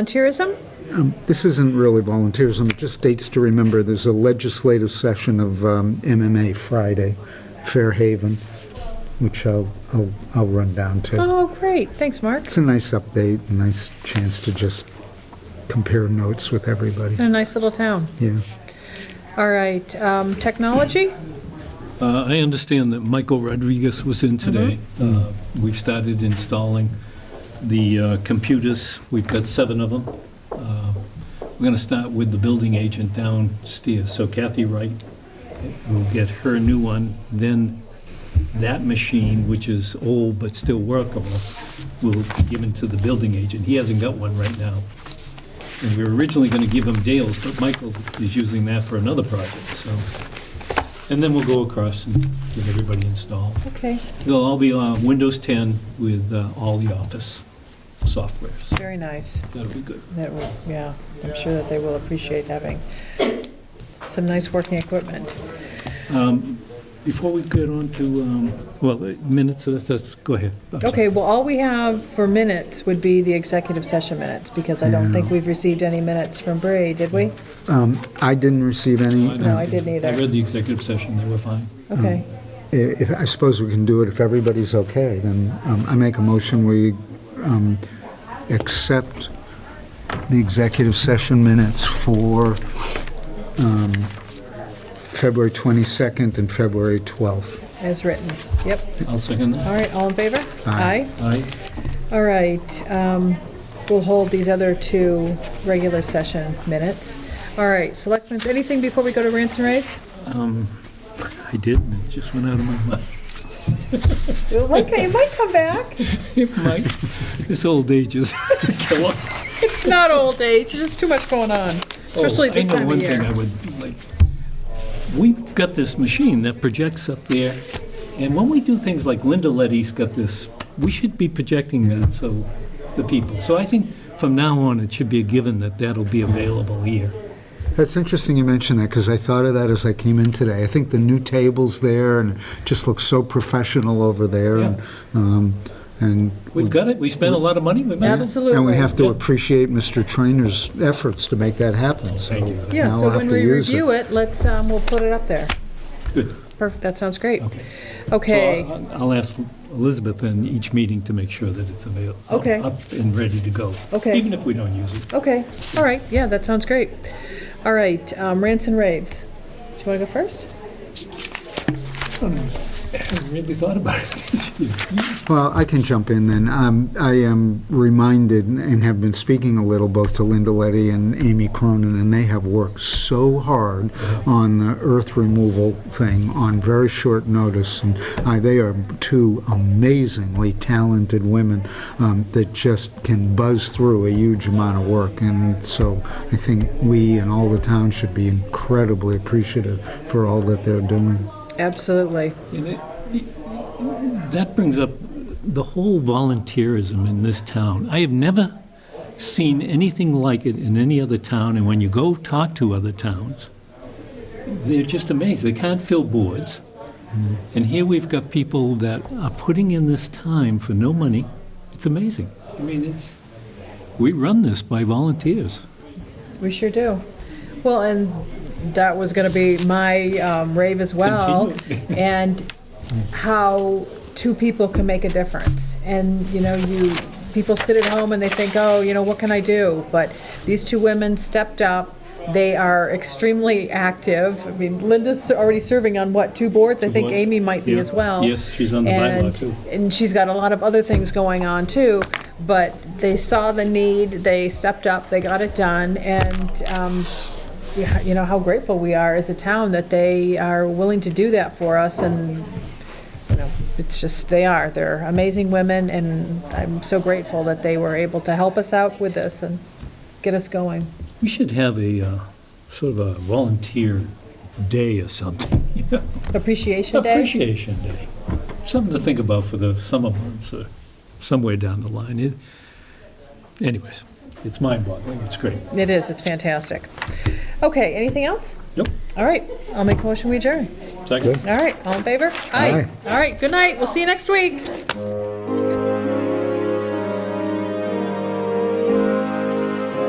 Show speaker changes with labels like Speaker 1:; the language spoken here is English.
Speaker 1: volunteerism?
Speaker 2: This isn't really volunteerism, it just dates to remember, there's a legislative session of um, MMA Friday, Fairhaven, which I'll, I'll I'll run down to.
Speaker 1: Oh, great, thanks, Mark.
Speaker 2: It's a nice update, a nice chance to just compare notes with everybody,
Speaker 1: A nice little town.
Speaker 2: yeah.
Speaker 1: All right, um, technology?
Speaker 3: Uh, I understand that Michael Rodriguez was in today. Uh, We've started installing the uh, computers. We've got seven of them. Uh, We're going to start with the building agent downstairs. So Kathy Wright will get her new one, then that machine, which is old but still workable, will be given to the building agent. He hasn't got one right now. And we were originally going to give him Dale's, but Michael is using that for another project, so. And then we'll go across and get everybody installed.
Speaker 1: Okay,
Speaker 3: They'll all be on Windows 10 with uh, all the Office softwares.
Speaker 1: very nice.
Speaker 3: That'll be good.
Speaker 1: That will, yeah, I'm sure that they will appreciate having some nice working equipment.
Speaker 3: Before we get on to, um, well, uh, minutes, that's, that's- go ahead. I'm sorry.
Speaker 1: Okay, well, all we have for minutes would be the executive session minutes, because I don't think we've received any minutes from Bray, did we?
Speaker 2: Um, I didn't receive any, uh,
Speaker 3: I
Speaker 2: I-
Speaker 1: No, I didn't either.
Speaker 3: I read the executive session, they were fine.
Speaker 1: Okay,
Speaker 2: if, I suppose we can do it if everybody's okay, then um, I make a motion, we um, accept the executive session minutes for um, February 22nd and February 12th.
Speaker 1: as written, yep.
Speaker 3: I'll second
Speaker 1: All
Speaker 3: that.
Speaker 1: right, all in favor?
Speaker 2: Aye.
Speaker 3: Aye.
Speaker 1: All right, um, we'll hold these other two regular session minutes. All right, selectmen, anything before we go to rants and raves?
Speaker 3: I did, and it just went out of my mind.
Speaker 1: Okay, it might come back.
Speaker 3: It might. This old age is. Oh,
Speaker 1: It's not old age, there's just too much going on, especially this
Speaker 3: Oh, I
Speaker 1: time
Speaker 3: know
Speaker 1: of
Speaker 3: one thing I
Speaker 1: year.
Speaker 3: would like. We've got this machine that projects up there, and when we do things like Linda Letty's got this, we should be projecting that, so, the people. So I think from now on, it should be a given that that'll be available here.
Speaker 2: That's interesting you mentioned that, because I thought of that as I came in today. I think the new table's there, and it just looks so professional over there. and, um, And,
Speaker 3: We've got it, we spent a lot of money, we might as well.
Speaker 1: Absolutely.
Speaker 2: and we have to
Speaker 3: Yeah.
Speaker 2: appreciate Mr. Trainer's efforts to make that happen, so
Speaker 3: Thank you.
Speaker 1: Yeah,
Speaker 2: now
Speaker 1: so
Speaker 2: we'll have
Speaker 1: when
Speaker 2: to
Speaker 1: we
Speaker 2: use
Speaker 1: review
Speaker 2: it.
Speaker 1: it, let's, um, we'll put it up there.
Speaker 3: Good.
Speaker 1: Perfect, that sounds great.
Speaker 3: Okay.
Speaker 1: Okay,
Speaker 3: So I'll I'll ask Elizabeth in each meeting to make sure that it's available.
Speaker 1: Okay.
Speaker 3: Up and ready to go.
Speaker 1: Okay.
Speaker 3: Even if we don't use it.
Speaker 1: okay, all right, yeah, that sounds great. All right, um, rants and raves. Do you want to go first?
Speaker 3: I haven't really thought about it this year.
Speaker 2: Well, I can jump in then. Um, I am reminded and have been speaking a little both to Linda Letty and Amy Cronin, and they have worked so hard on the earth removal thing on very short notice. And I, they are two amazingly talented women um, that just can buzz through a huge amount of work. And so I think we and all the town should be incredibly appreciative for all that they're doing.
Speaker 1: Absolutely.
Speaker 3: And it- That brings up the whole volunteerism in this town. I have never seen anything like it in any other town, and when you go talk to other towns, they're just amazed. They can't fill boards. And here we've got people that are putting in this time for no money. It's amazing. I mean, it's, we run this by volunteers.
Speaker 1: We sure do. Well, and that was going to be my um, rave as well. And how two people can make a difference. And, you know, you, people sit at home and they think, oh, you know, what can I do? But these two women stepped up. They are extremely active. I mean, Linda's already serving on what, two boards? I think
Speaker 3: boards.
Speaker 1: Amy might be
Speaker 3: Yeah.
Speaker 1: as well.
Speaker 3: Yes, she's on the bylaw,
Speaker 1: And-
Speaker 3: too.
Speaker 1: and she's got a lot of other things going on too, but they saw the need, they stepped up, they got it done, and, um, yeah, you know, how grateful we are as a town that they are willing to do that for us, and, you know, it's just, they are, they're amazing women, and I'm so grateful that they were able to help us out with this and get us going.
Speaker 3: We should have a, uh, sort of a volunteer day or something, you know?
Speaker 1: Appreciation Day?
Speaker 3: Appreciation Day. Something to think about for the summer months or somewhere down the line. It- Anyways, it's mind-boggling. It's great.
Speaker 1: It is, it's fantastic. Okay, anything else?
Speaker 3: Nope.
Speaker 1: All right, I'll make a motion, we adjourn.
Speaker 3: Second.
Speaker 1: All right, all in favor? All right, good night, we'll see you next week.